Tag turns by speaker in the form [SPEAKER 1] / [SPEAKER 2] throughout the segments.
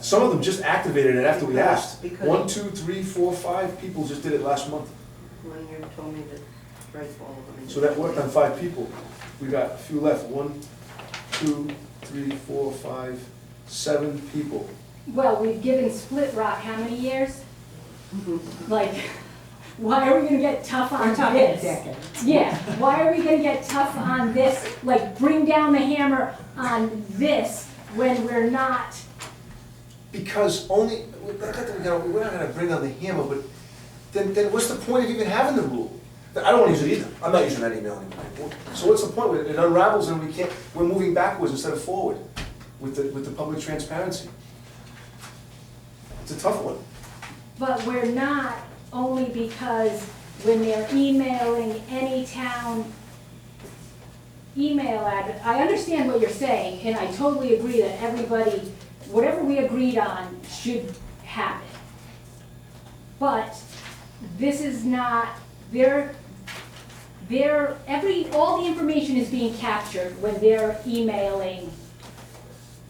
[SPEAKER 1] Some of them just activated it after we
[SPEAKER 2] Because-
[SPEAKER 1] asked.
[SPEAKER 2] because-
[SPEAKER 1] One, two, three, four, five people just did it last month.
[SPEAKER 2] One year told me to write all of them. in.
[SPEAKER 1] So that worked on five people. We got a few left, one, two, three, four, five, seven people.
[SPEAKER 3] Well, we've given Split Rock how many years? Like, why are we gonna get tough on
[SPEAKER 4] We're talking a
[SPEAKER 3] this?
[SPEAKER 4] decade.
[SPEAKER 3] Yeah, why are we gonna get tough on this, like, bring down the hammer on this when we're not?
[SPEAKER 1] Because only, we- we're not gonna, we're not gonna bring on the hammer, but then, then what's the point of even having the rule? I don't wanna use it either, I'm not using that email anymore. So what's the point with it? It unravels and we can't, we're moving backwards instead of forward with the, with the public transparency. It's a tough one.
[SPEAKER 3] But we're not only because when they're emailing any town email ad, I understand what you're saying, and I totally agree that everybody, whatever we agreed on should happen. But this is not, they're, they're, every, all the information is being captured when they're emailing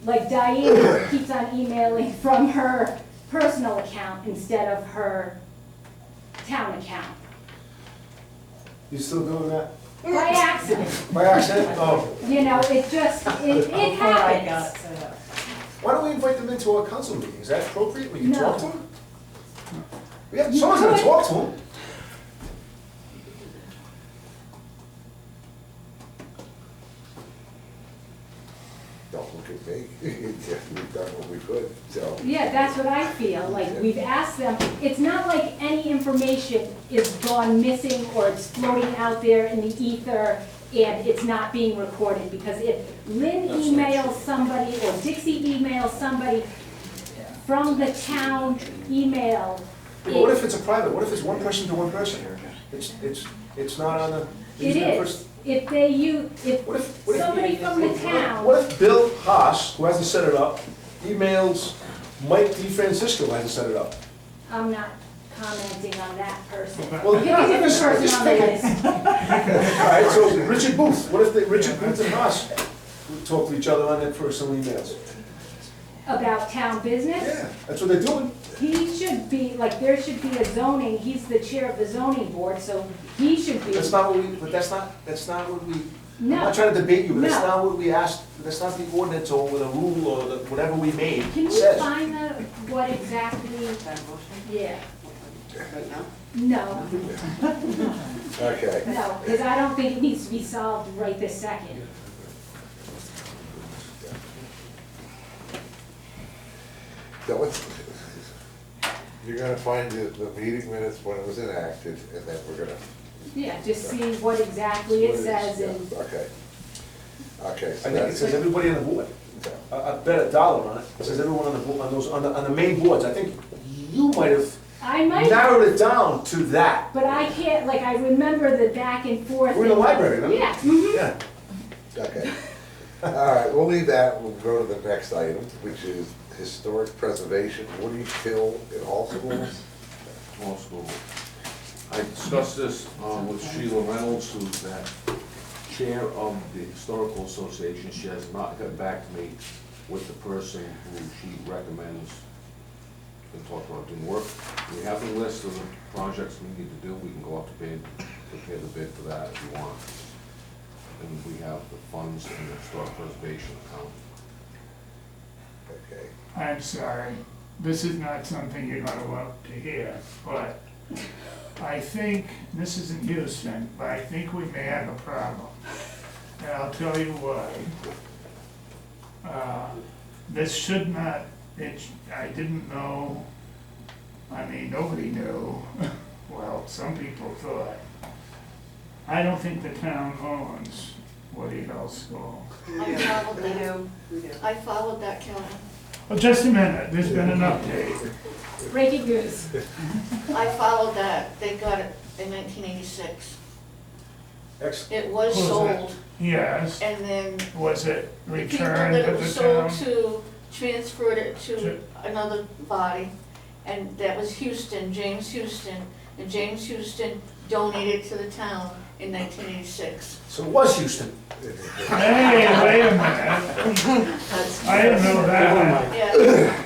[SPEAKER 3] like Diane keeps on emailing from her personal account instead of her town account.
[SPEAKER 1] You still doing that?
[SPEAKER 3] By accident,
[SPEAKER 1] By accident? Oh.
[SPEAKER 3] you know, it just, it, it
[SPEAKER 4] Before Oh, I got
[SPEAKER 3] happens.
[SPEAKER 4] set up.
[SPEAKER 1] Why don't we invite them into our council meeting? Is that appropriate? We can
[SPEAKER 3] No.
[SPEAKER 1] talk to them? We have,
[SPEAKER 3] You
[SPEAKER 1] someone's gonna
[SPEAKER 3] could.
[SPEAKER 1] talk to them.
[SPEAKER 5] Don't look at me. We've done what we could, so.
[SPEAKER 3] Yeah, that's what I feel, like we've asked them, it's not like any information is gone missing or it's floating out there in the ether and it's not being recorded, because if Lynn
[SPEAKER 1] That's not true.
[SPEAKER 3] emails somebody or Dixie emails somebody from the town email,
[SPEAKER 1] But what
[SPEAKER 3] it-
[SPEAKER 1] if it's a private? What if it's one person to one person here? It's, it's, it's not on the.
[SPEAKER 3] It is, if they use, if
[SPEAKER 1] What if, what if?
[SPEAKER 3] somebody from the
[SPEAKER 1] What
[SPEAKER 3] town,
[SPEAKER 1] if Bill Haas, who hasn't set it up, emails Mike DeFrancisco, who hasn't set it up?
[SPEAKER 3] I'm not commenting on that person.
[SPEAKER 1] Well,
[SPEAKER 3] Pick a different
[SPEAKER 1] just-
[SPEAKER 3] person
[SPEAKER 1] just
[SPEAKER 3] on the
[SPEAKER 1] pick a-
[SPEAKER 3] list.
[SPEAKER 1] All right, so Richard Booth, what if they, Richard Booth and Haas would talk to each other on their personal emails?
[SPEAKER 3] About town business,
[SPEAKER 1] Yeah, that's what they're doing.
[SPEAKER 3] he should be, like, there should be a zoning, he's the chair of the zoning board, so he should be.
[SPEAKER 1] That's not what we, but that's not, that's not what we, I'm
[SPEAKER 3] No.
[SPEAKER 1] not trying to debate you, but that's
[SPEAKER 3] No.
[SPEAKER 1] not what we asked, that's not the ordinance or the rule or the, whatever we made
[SPEAKER 3] Can we
[SPEAKER 1] says.
[SPEAKER 3] find the, what exactly,
[SPEAKER 2] That motion,
[SPEAKER 3] yeah,
[SPEAKER 2] right now?
[SPEAKER 3] no,
[SPEAKER 5] Okay.
[SPEAKER 3] no, because I don't think it needs to be solved right this second.
[SPEAKER 5] So what's, you're gonna find the, the meeting minutes when it was enacted, and then we're gonna.
[SPEAKER 3] Yeah, just see what exactly it says and
[SPEAKER 5] Yeah, Okay. Okay,
[SPEAKER 1] I
[SPEAKER 5] so
[SPEAKER 1] think it
[SPEAKER 5] that's.
[SPEAKER 1] says everybody on the board.
[SPEAKER 5] yeah.
[SPEAKER 1] I, I bet a dollar on it. It says everyone on the, bo- on those, on the, on the main boards. I think you might have
[SPEAKER 3] I might.
[SPEAKER 1] narrowed it down to that.
[SPEAKER 3] But I can't, like, I remember the back and forth.
[SPEAKER 1] We're in the library, remember?
[SPEAKER 3] Yeah, mhm.
[SPEAKER 1] Yeah.
[SPEAKER 5] Okay. All right, we'll leave that, we'll go to the next item, which is historic preservation, Woody Hill in all schools.
[SPEAKER 6] small school. I discussed this um, with Sheila Reynolds, who's that chair of the Historical Association. She has not got back to me with the person who she recommends to talk about doing work. We have a list of the projects we need to do. We can go out to bid, prepare the bid for that if you want. And we have the funds in the historic preservation account.
[SPEAKER 5] Okay.
[SPEAKER 7] I'm sorry, this is not something you're gonna want to hear, but I think, this isn't Houston, but I think we may have a problem. And I'll tell you why. Uh, This should not, it, I didn't know, I mean, nobody knew, well, some people thought. I don't think the town owns Woody Hill School.
[SPEAKER 8] I followed
[SPEAKER 2] We
[SPEAKER 8] that,
[SPEAKER 2] do, we do.
[SPEAKER 8] I followed that, Kelly.
[SPEAKER 7] Well, just a minute, there's been an update.
[SPEAKER 3] breaking news.
[SPEAKER 8] I followed that. They got it in nineteen eighty-six.
[SPEAKER 1] Ex-
[SPEAKER 8] It was
[SPEAKER 7] Who's that?
[SPEAKER 8] sold,
[SPEAKER 7] Yes.
[SPEAKER 8] and then
[SPEAKER 7] Was it
[SPEAKER 8] the people
[SPEAKER 7] returned
[SPEAKER 8] that
[SPEAKER 7] to
[SPEAKER 8] it was
[SPEAKER 7] the
[SPEAKER 8] sold
[SPEAKER 7] town?
[SPEAKER 8] to transferred it to
[SPEAKER 7] To-
[SPEAKER 8] another body. And that was Houston, James Houston, and James Houston donated to the town in nineteen eighty-six.
[SPEAKER 1] So it was Houston.
[SPEAKER 7] Hey, wait a minute,
[SPEAKER 2] That's-
[SPEAKER 7] I didn't know that.
[SPEAKER 8] Yeah.